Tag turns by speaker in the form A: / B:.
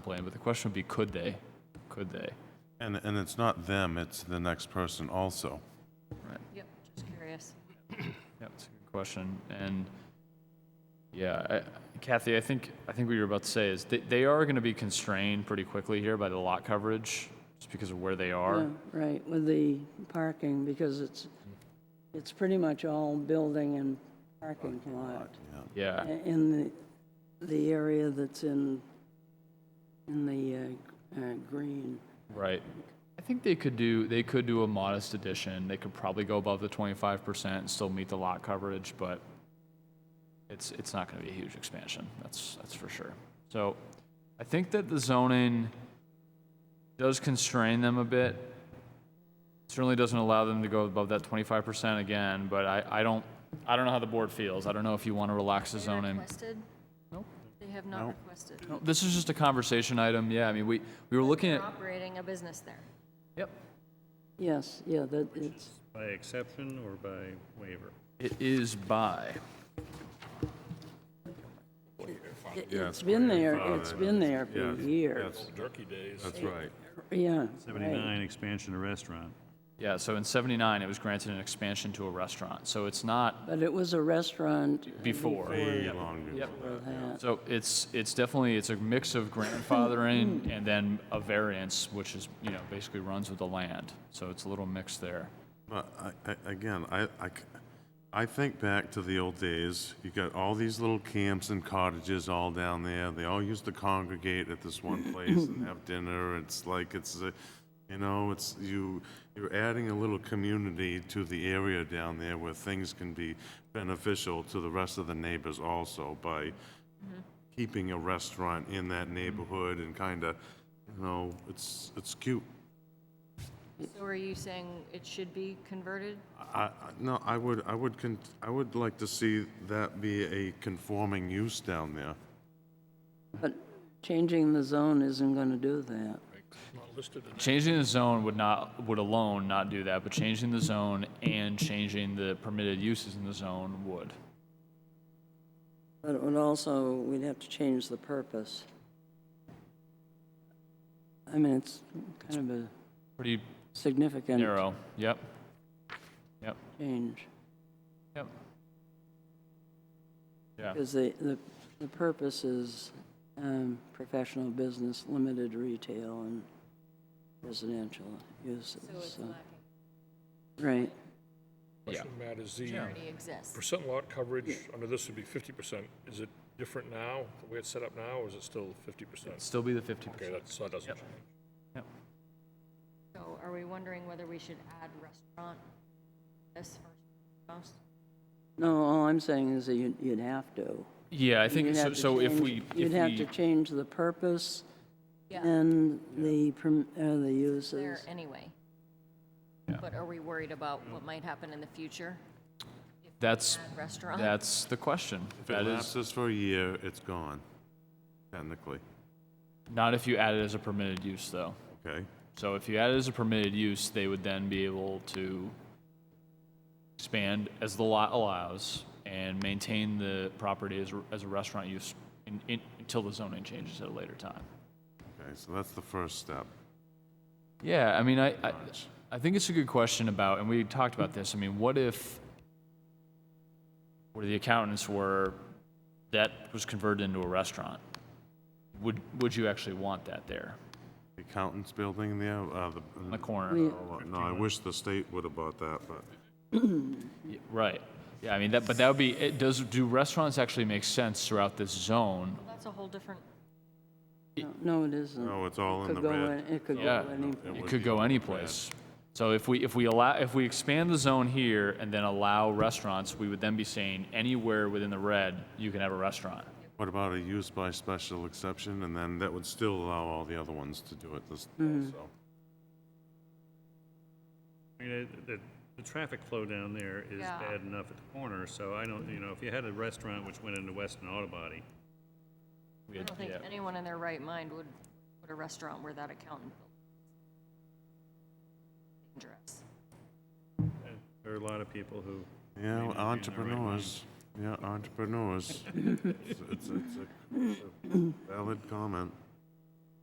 A: plan, but the question would be, could they? Could they?
B: And, and it's not them, it's the next person also.
C: Yep, just curious.
A: Yeah, that's a good question. And yeah, I- Kathy, I think, I think what you were about to say is they, they are going to be constrained pretty quickly here by the lot coverage, just because of where they are.
D: Yeah, Right, with the parking, because it's, it's pretty much all building and parking lot
A: Yeah,
D: i- in the, the area that's in, in the uh, uh, green.
A: right. I think they could do, they could do a modest addition. They could probably go above the twenty-five percent and still meet the lot coverage, but it's, it's not going to be a huge expansion. That's, that's for sure. So I think that the zoning does constrain them a bit. Certainly doesn't allow them to go above that twenty-five percent again, but I, I don't, I don't know how the board feels. I don't know if you want to relax the
C: They
A: zoning.
C: Requested?
A: Nope.
C: They have not
B: Nope.
C: requested.
A: No, This is just a conversation item. Yeah, I mean, we, we were looking
C: They're
A: at,
C: operating a business there.
A: yep.
D: Yes, yeah, that, it's,
E: By exception or by waiver?
A: It is by.
D: it- it's been there, it's been there for years.
B: Turkey days. That's right.
D: Yeah, right,
E: 79, expansion of restaurant.
A: Yeah, so in 79, it was granted an expansion to a restaurant. So it's not
D: but it was a restaurant
A: before.
B: Way longer.
A: Yep.
D: for that.
A: So it's, it's definitely, it's a mix of grandfathering and then a variance, which is, you know, basically runs with the land. So it's a little mix there.
B: But I, I, again, I, I c- I think back to the old days, you got all these little camps and cottages all down there, they all used to congregate at this one place and have dinner, it's like, it's, a- you know, it's, you, you're adding a little community to the area down there where things can be beneficial to the rest of the neighbors also by keeping a restaurant in that neighborhood and kinda, you know, it's, it's cute.
C: So are you saying it should be converted?
B: I, I- no, I would, I would, con- I would like to see that be a conforming use down there.
D: But changing the zone isn't going to do that.
A: Changing the zone would not, would alone not do that, but changing the zone and changing the permitted uses in the zone would.
D: But it would also, we'd have to change the purpose. I mean, it's kind of a
A: Pretty
D: significant
A: narrow. Yep. Yep.
D: change.
A: Yep. Yeah.
D: Because the, the, the purpose is um, professional business, limited retail, and residential uses. so- Right,
A: Yeah.
F: Question, Matt, is the
C: Already exists.
F: percent lot coverage under this would be fifty percent. Is it different now, the way it's set up now, or is it still fifty percent?
A: Still be the 50%.
F: Okay, that's, that doesn't
A: Yep.
F: change.
A: Yep.
C: So are we wondering whether we should add restaurant this first and foremost?
D: no, all I'm saying is that you'd, you'd have to.
A: Yeah, I think,
D: You'd
A: so
D: have to
A: So if
D: change-
A: we, if
D: You'd have to
A: we,
D: change the purpose
C: Yeah,
D: and the, perm- uh, the uses.
C: there anyway. But are we worried about what might happen in the future?
A: that's,
C: Add
D: Uh-huh.
C: Restaurant?
A: that's the question.
B: If it
A: That is,
B: lapses for a year, it's gone, technically,
A: not if you add it as a permitted use, though.
B: okay?
A: So if you add it as a permitted use, they would then be able to expand as the lot allows and maintain the property as, a- as a restaurant use in, in, until the zoning changes at a later time.
B: Okay, so that's the first step.
A: Yeah, I mean, I, I, I think it's a good question about, and we talked about this. I mean, what if, where the accountants were, that was converted into a restaurant? Would, would you actually want that there
B: The Accountant's building there, uh, the.
A: on the corner?
D: We-
B: No, I wish the state would have bought that, but
A: Yeah, Right. Yeah, I mean, that, but that would be, it does, do restaurants actually make sense throughout this zone?
C: Well, That's a whole different,
D: No, No, it isn't.
B: No, it's all in
D: Could
B: the
D: go
B: red.
D: in- It
C: Oh,
D: could
A: Yeah.
D: go any,
A: It
B: would
A: could
B: be
A: go
B: bad.
A: any place. So if we, if we allow, if we expand the zone here and then allow restaurants, we would then be saying anywhere within the red, you can have a restaurant.
B: what about a use by special exception? And then that would still allow all the other ones to do it this,
D: Mm-hmm.
B: so.
E: I mean, it- the, the traffic flow down there is
C: Yeah.
E: bad enough at the corner, so I don't, you know, if you had a restaurant which went into Weston Auto Body,
A: We
C: I
A: had-
C: don't think
A: yeah.
C: anyone in their right mind would put a restaurant where that accountant built. Dangerous.
E: there are a lot of people who,
B: Yeah,
E: Maybe
B: entrepreneurs. Yeah, entrepreneurs. It's it's- it's a it's a valid comment.